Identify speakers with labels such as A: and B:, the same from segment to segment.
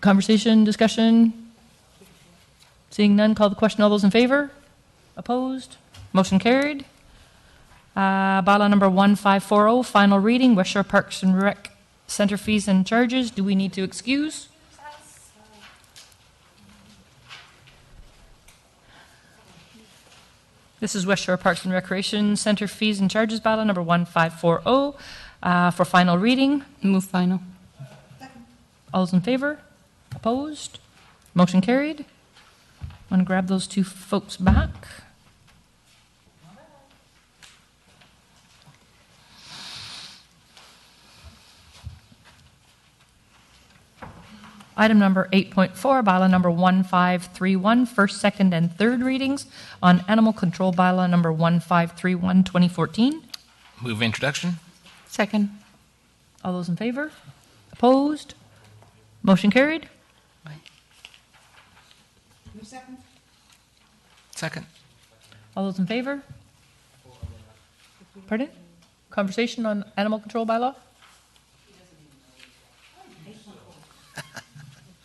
A: Conversation, discussion? Seeing none, call the question. All those in favor? Opposed? Motion carried. Uh, Bylaw number 1540, oh, final reading, West Shore Parks and Rec Center fees and charges. Do we need to excuse? This is West Shore Parks and Recreation Center fees and charges, bylaw number 1540, uh, for final reading.
B: Move final.
A: All those in favor? Opposed? Motion carried. Want to grab those two folks back? Item number 8.4, bylaw number 1531, first, second, and third readings on animal control bylaw number 1531, 2014.
C: Move introduction.
B: Second.
A: All those in favor? Opposed? Motion carried.
C: Second.
A: All those in favor? Pardon? Conversation on animal control bylaw?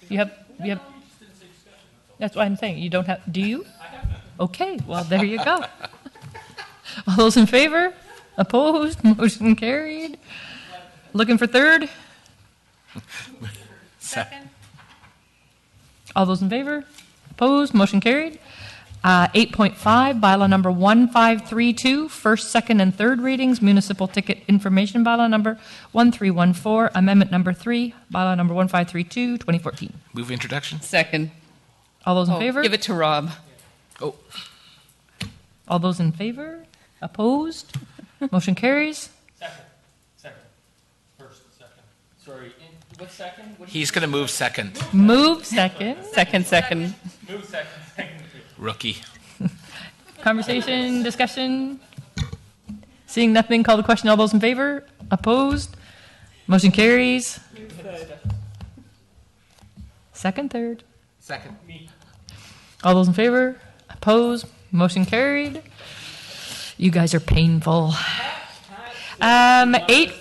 A: You have, you have, that's what I'm saying, you don't have, do you? Okay, well, there you go. All those in favor? Opposed? Motion carried. Looking for third?
C: Second.
A: All those in favor? Opposed? Motion carried. Uh, 8.5, bylaw number 1532, first, second, and third readings, municipal ticket information bylaw number 1314, amendment number 3, bylaw number 1532, 2014.
C: Move introduction.
B: Second.
A: All those in
B: Oh,
A: favor?
B: Give it to Rob.
C: Oh,
A: All those in favor? Opposed? Motion carries.
D: Second, second, first, second. Sorry, in, what second? What
C: he's going to move second.
A: Move second.
B: Second, second.
D: move second, second.
C: Rookie.
A: Conversation, discussion? Seeing nothing, call the question. All those in favor? Opposed? Motion carries. Second, third.
C: Second.
A: All those in favor? Opposed? Motion carried. You guys are painful. Um, eight.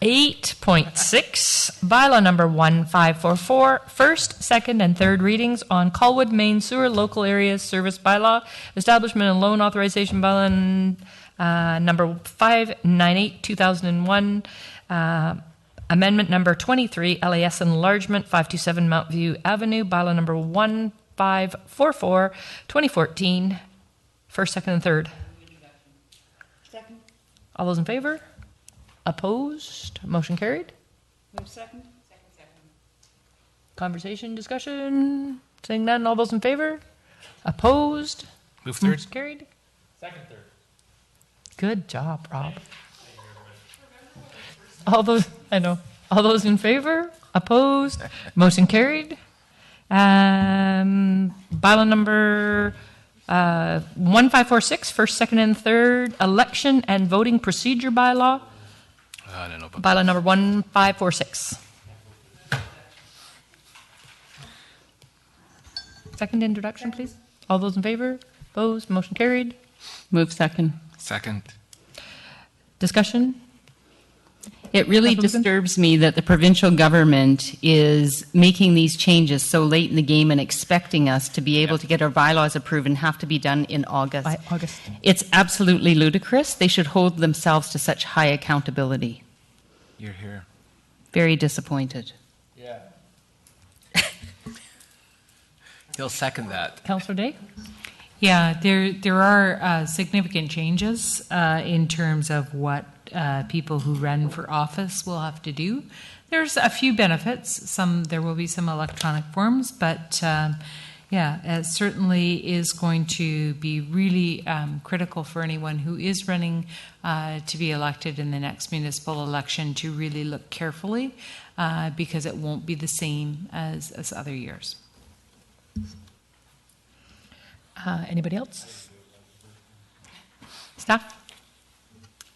A: Eight point six, bylaw number one five four four, first, second, and third readings on Colwood Main Sewer Local Areas Service Bylaw, Establishment and Loan Authorization Bylaw, uh, number five nine eight, two thousand and one, uh, Amendment number 23, LAS enlargement, 527 Mount View Avenue, bylaw number 1544, 2014, first, second, and third. All those in favor? Opposed? Motion carried? Move second. Conversation, discussion? Seeing none, all those in favor? Opposed?
C: Move third.
A: Motion carried?
D: Second, third.
A: Good job, Rob. All those, I know, all those in favor, opposed, motion carried. Um, bylaw number, uh, one five four six, first, second, and third, election and voting procedure bylaw,
C: I don't know. about-
A: bylaw number one five four six. Second introduction, please. All those in favor, opposed, motion carried.
B: Move second.
C: Second.
A: Discussion?
B: It really
A: Councilwoman?
B: disturbs me that the provincial government is making these changes so late in the game and expecting us to be able to get our bylaws approved and have to be done in August.
A: By August.
B: It's absolutely ludicrous. They should hold themselves to such high accountability.
C: You're here.
B: Very disappointed.
D: Yeah.
C: He'll second that.
A: Counselor Day?
E: Yeah, there, there are uh, significant changes uh, in terms of what uh, people who run for office will have to do. There's a few benefits. Some there will be some electronic forms, but um, yeah, it certainly is going to be really um, critical for anyone who is running uh, to be elected in the next municipal election to really look carefully uh, because it won't be the same as, as other years.
A: Uh, Anybody else? Staff?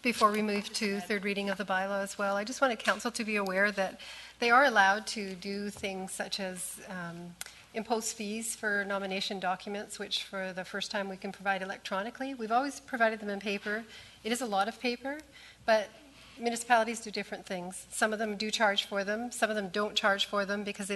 F: Before we move to third reading of the bylaw as well, I just wanted council to be aware that they are allowed to do things such as um, impose fees for nomination documents, which for the first time we can provide electronically. We've always provided them in paper. It is a lot of paper, but municipalities do different things. Some of them do charge for them, some of them don't charge for them because they